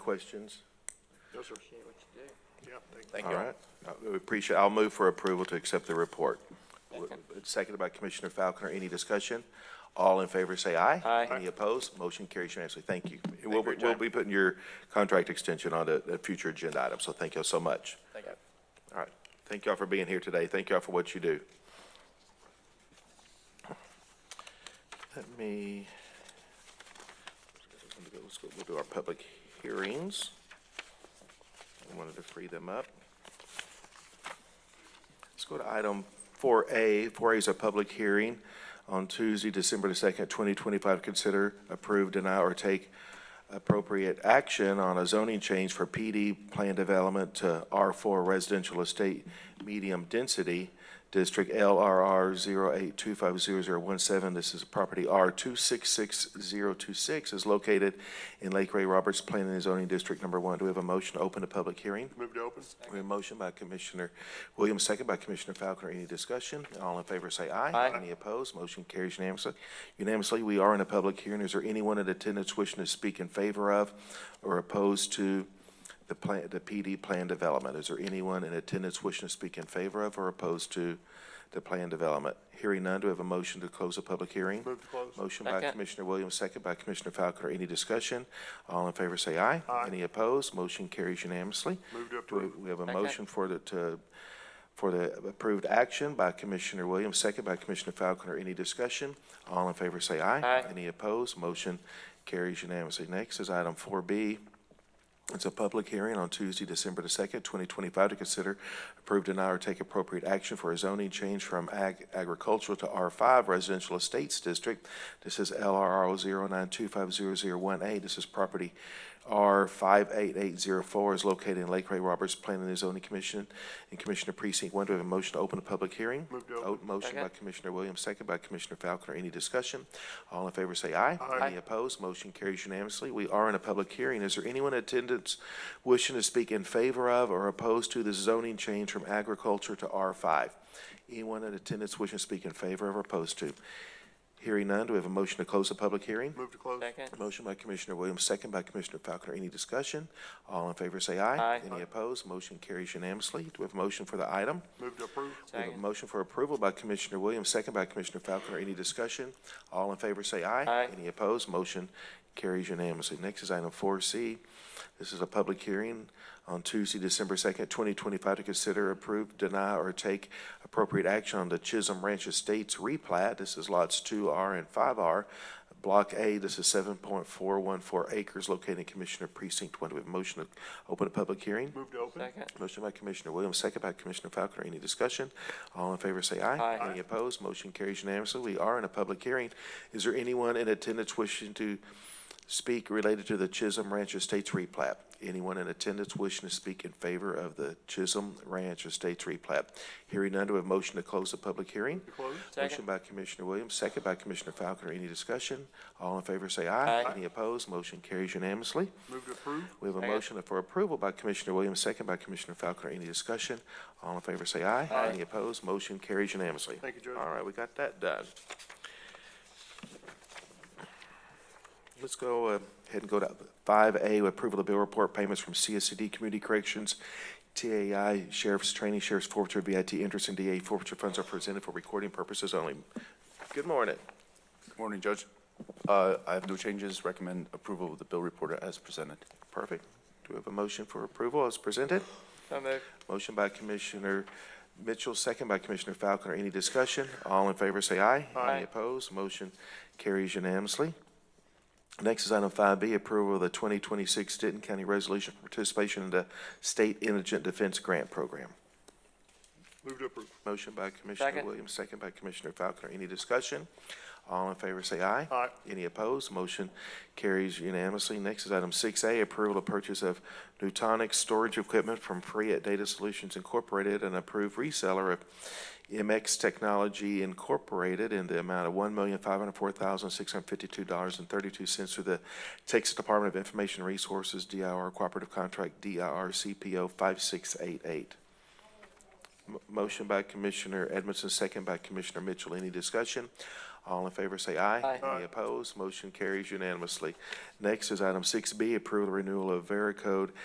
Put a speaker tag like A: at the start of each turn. A: Questions?
B: Yes, sir. Yeah, thank you.
C: Thank
A: All
C: you all.
A: right. Uh, We appreciate, I'll move for approval to accept the report. It's Seconded by Commissioner Falconer. Any discussion? All in favor, say aye.
C: Aye.
A: Any opposed? Motion carries unanimously. Thank you.
C: you
A: We'll,
C: for your
A: we'll
C: time.
A: be putting your contract extension on a, a future agenda item, so thank you all so much.
C: Thank you.
A: All right. Thank y'all for being here today. Thank y'all for what you do. Let me, let's go, we'll do our public hearings. I wanted to free them up. Let's go to item four A. Four A is a public hearing on Tuesday, December the second, twenty twenty-five. Consider, approve, deny, or take appropriate action on a zoning change for PD plan development to R four residential estate medium density, District LRR 8250017. This is property R two six six zero two six is located in Lake Ray Roberts Planning and Zoning District Number One. Do we have a motion to open a public hearing?
B: Move to open.
A: We have a motion by Commissioner Williams, second by Commissioner Falconer. Any discussion? All in favor say aye.
C: Aye.
A: Any opposed? Motion carries unanimously. Unanimously, we are in a public hearing. Is there anyone in attendance wishing to speak in favor of or opposed to the plan, the PD plan development? Is there anyone in attendance wishing to speak in favor of or opposed to the plan development? Hearing none, do we have a motion to close the public hearing?
B: Move to close.
A: Motion by
C: Second.
A: Commissioner Williams, second by Commissioner Falconer. Any discussion? All in favor say aye.
B: Aye.
A: Any opposed? Motion carries unanimously.
B: Move to
A: Do we-
B: approve.
A: We have a
C: Second.
A: motion for the, to, for the approved action by Commissioner Williams, second by Commissioner Falconer. Any discussion? All in favor say aye.
C: Aye.
A: Any opposed? Motion carries unanimously. Next is item four B. It's a public hearing on Tuesday, December the second, twenty twenty-five, to consider, approve, deny, or take appropriate action for a zoning change from ag- agricultural to R five residential estates district. This is LRR 9250018. This is property R five eight eight zero four is located in Lake Ray Roberts Planning and Zoning Commission and Commissioner Precinct One. Do we have a motion to open a public hearing?
B: Move to open.
A: Oh, Motion by
C: Second.
A: Commissioner Williams, second by Commissioner Falconer. Any discussion? All in favor say aye.
B: Aye.
A: Any opposed? Motion carries unanimously. We are in a public hearing. Is there anyone in attendance wishing to speak in favor of or opposed to the zoning change from agriculture to R5? Anyone in attendance wishing to speak in favor of or opposed to? Hearing none, do we have a motion to close the public hearing?
B: Move to close.
C: Second.
A: Motion by Commissioner Williams, second by Commissioner Falconer. Any discussion? All in favor say aye.
C: Aye.
A: Any opposed? Motion carries unanimously. Do we have a motion for the item?
B: Move to approve.
A: We have a
C: Second.
A: motion for approval by Commissioner Williams, second by Commissioner Falconer. Any discussion? All in favor say aye.
C: Aye.
A: Any opposed? Motion carries unanimously. Next is item four C. This is a public hearing on Tuesday, December second, twenty twenty-five, to consider, approve, deny, or take appropriate action on the Chisholm Ranch Estates replat. This is lots two R and five R. Block A, this is seven point four one four acres located in Commissioner Precinct One. Do we have a motion to open a public hearing?
B: Move to open.
C: Second.
A: Motion by Commissioner Williams, second by Commissioner Falconer. Any discussion? All in favor, say aye.
C: Aye.
A: Any opposed? Motion carries unanimously. We are in a public hearing. Is there anyone in attendance wishing to speak related to the Chisholm Ranch Estates replat? Anyone in attendance wishing to speak in favor of the Chisholm Ranch Estates replat? Hearing none, do we have a motion to close the public hearing?
B: To close.
A: Motion
C: Second.
A: by Commissioner Williams, second by Commissioner Falconer. Any discussion? All in favor, say aye.
C: Aye.
A: Any opposed? Motion carries unanimously.
B: Move to approve.
A: We have a
C: Second.
A: motion for approval by Commissioner Williams, second by Commissioner Falconer. Any discussion? All in favor, say aye.
C: Aye.
A: Any opposed? Motion carries unanimously.
B: Thank you, Judge.
A: All right, we got that done. Let's go uh, ahead and go to five A, approval of bill report payments from CSCD Community Corrections, TAI, Sheriff's Training, Sheriff's Forfeiture, VIT interest, and DA forfeiture funds are presented for recording purposes only. Good morning.
D: Morning, Judge. Uh, I have no changes. Recommend approval of the bill reporter as presented.
A: Perfect. Do we have a motion for approval as presented?
C: So moved.
A: Motion by Commissioner Mitchell, second by Commissioner Falconer. Any discussion? All in favor, say aye.
C: Aye.
A: Any opposed? Motion carries unanimously. Next is item five B, approval of the twenty twenty-six Denton County Resolution for Participation in the State Indigent Defense Grant Program.
B: Move to approve.
A: Motion by Commissioner
C: Second.
A: Williams, second by Commissioner Falconer. Any discussion? All in favor, say aye.
B: Aye.
A: Any opposed? Motion carries unanimously. Next is item six A, approval of purchase of Newtonic storage equipment from Free at Data Solutions Incorporated, an approved reseller of MX Technology Incorporated in the amount of one million five hundred four thousand six hundred fifty-two dollars and thirty-two cents through the Texas Department of Information Resources, DIR Cooperative Contract, DIR CPO five six eight eight. M- Motion by Commissioner Edmondson, second by Commissioner Mitchell. Any discussion? All in favor say aye.
C: Aye.
A: Any opposed? Motion carries unanimously. Next is item six B, approve the renewal of Veracode